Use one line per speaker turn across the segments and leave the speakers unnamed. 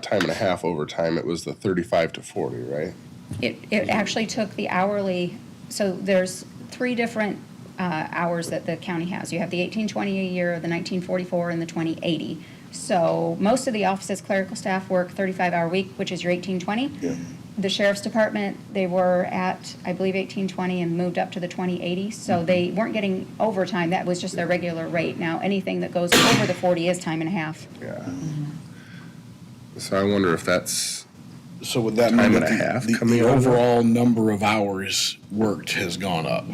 time and a half overtime, it was the thirty-five to forty, right?
It, it actually took the hourly, so there's three different uh, hours that the county has. You have the eighteen twenty a year, the nineteen forty-four, and the twenty eighty. So most of the offices clerical staff work thirty-five hour week, which is your eighteen twenty. The sheriff's department, they were at, I believe, eighteen twenty and moved up to the twenty eighty. So they weren't getting overtime, that was just their regular rate. Now, anything that goes over the forty is time and a half.
Yeah. So I wonder if that's,
So would that
Time and
mean that
a half
the, the-
coming
the
over?
overall number of hours worked has gone up?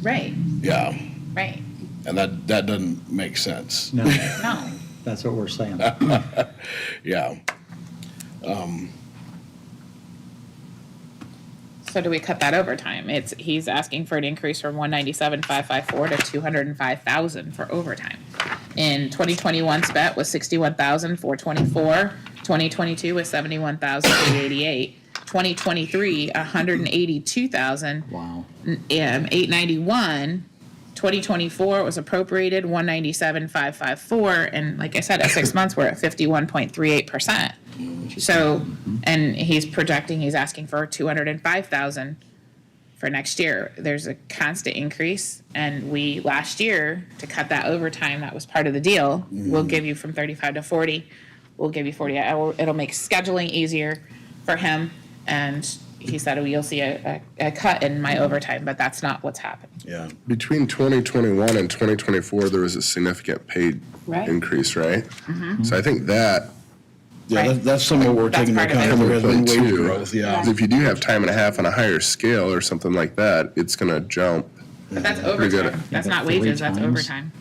Right,
Yeah,
right.
and that, that doesn't make sense.
No,
No,
that's what we're saying.
Yeah,
so do we cut that overtime? It's, he's asking for an increase from one ninety-seven, five, five, four to two hundred and five thousand for overtime. In twenty twenty-one, spent was sixty-one thousand, four twenty-four. Twenty twenty-two was seventy-one thousand, eight eighty-eight. Twenty twenty-three, a hundred and eighty-two thousand,
Wow.
um, eight ninety-one. Twenty twenty-four was appropriated, one ninety-seven, five, five, four, and like I said, at six months, we're at fifty-one point three eight percent. So,
Mm-hmm.
and he's projecting, he's asking for two hundred and five thousand for next year. There's a constant increase, and we, last year, to cut that overtime, that was part of the deal,
Mm-hmm.
we'll give you from thirty-five to forty, we'll give you forty, hour- it'll make scheduling easier for him, and he said, "Oh, you'll see a, a, a cut in my overtime, but that's not what's happened.
yeah.
between twenty twenty-one and twenty twenty-four, there was a significant paid
Right. Mm-hmm.
increase, right? So I think that
Yeah,
Right.
that, that's something we're
That's
taking into
part of it.
account. There has been
Point
wage
two,
growth, yeah.
is If you do have time and a half on a higher scale or something like that, it's gonna jump.
But that's
Mm-hmm.
Pretty good.
overtime, that's
Yeah,
not
but three
wages, that's
times.
overtime.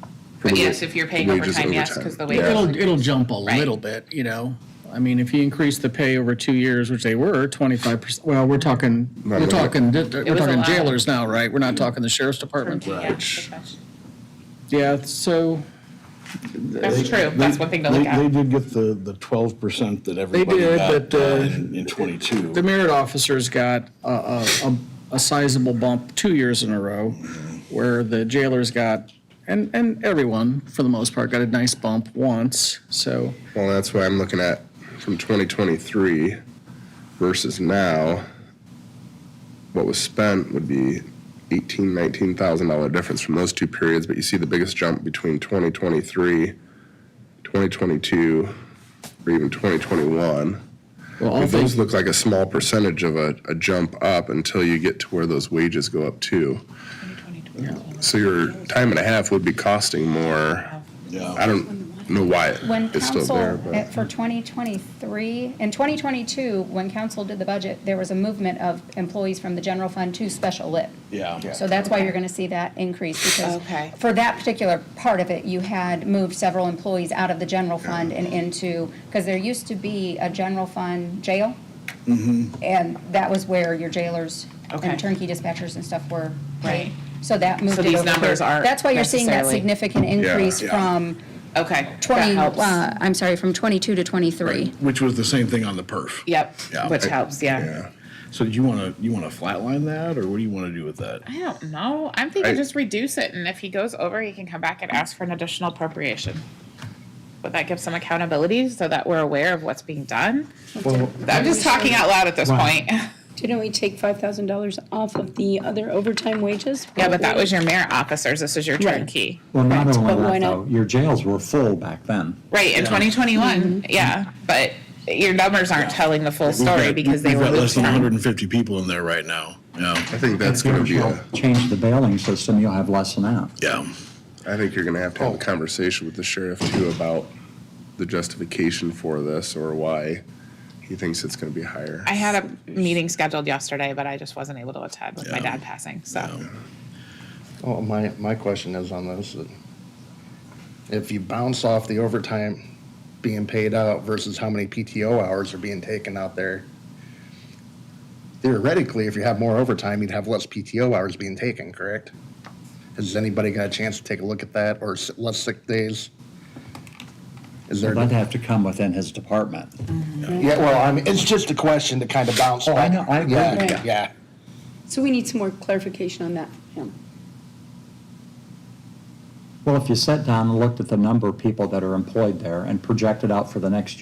But
Probably
yes, if you're paying
wages
overtime, yes, 'cause the
Yeah.
It'll, it'll jump a
Right.
little bit, you know? I mean, if you increase the pay over two years, which they were, twenty-five percent, well, we're talking,
Not
we're
really.
talking, we're
was a
talking
lot.
jailers now, right? We're not talking the sheriff's
From-
department.
yeah, good question.
Yeah, so
That's true, that's one thing to
They-
look
They
at.
did get the, the twelve percent that everybody
did,
got
but, uh,
uh, in in twenty-two.
the merit officers got a, a, a- a sizable bump two years in a row, where the jailers got, and, and everyone, for the most part, got a nice bump once, so.
Well, that's why I'm looking at from 2023 versus now. What was spent would be 18, 19 thousand dollar difference from those two periods, but you see the biggest jump between 2023, 2022, or even 2021.
Well, all
But
things
those look like a small percentage of a, a jump up until you get to where those wages go up too. So your time and a half would be costing more. I don't know why it-
When
it's still
council,
there, but.
at- for 2023, in 2022, when council did the budget, there was a movement of employees from the general fund to special lit.
Yeah.
So that's why you're going to see that increase, because
Okay.
for that particular part of it, you had moved several employees out of the general fund and into, because there used to be a general fund jail.
Mm-hmm.
And that was where your jailers
Okay.
and turnkey dispatchers and stuff were
Right.
paid. So that moved
So
it
these
over there.
numbers aren't
That's why you're seeing that
necessarily-
significant increase
yeah.
from
Okay, that
20,
helps.
uh, I'm sorry, from 22 to 23.
Which was the same thing on the perf.
Yep,
Yeah.
which helps, yeah.
So do you wanna, you wanna flatline that, or what do you wanna do with that?
I don't know, I'm thinking
I-
just reduce it, and if he goes over, he can come back and ask for an additional appropriation. But that gives some accountability so that we're aware of what's being done. I'm just talking out loud at this point.
Didn't we take five thousand dollars off of the other overtime wages?
Yeah, but that was your merit officers, this is your
Right.
turnkey.
Well, not only
but why
that, though,
not?
your jails were full back then.
Right, in twenty twenty-one, yeah, but your numbers aren't telling the full
We've got-
story because they
we've
were
got Less
looped
than hundred
in.
and fifty people in there right now, yeah,
I think that's
If
gonna
you
be a,
help Change the bailing system, you'll have less than that.
yeah.
I think you're gonna have to have a conversation with the sheriff too about the justification for this or why he thinks it's gonna be higher.
I had a meeting scheduled yesterday, but I just wasn't able to attend with my
Yeah.
dad passing, so.
Well, Oh, my, my question is on this, that if you bounce off the overtime being paid out versus how many PTO hours are being taken out there, theoretically, if you have more overtime, you'd have less PTO hours being taken, correct? Has anybody got a chance to take a look at that, or s- less sick days? Is there,
Well, That'd have to come within his department.
yeah, well, I mean, it's just a question to kind of bounce
Oh,
back.
I know, I agree
Yeah,
with
you.
Yeah,
So we need some more clarification on that from him.
Well, if you sat down and looked at the number of people that are employed there and projected out for the next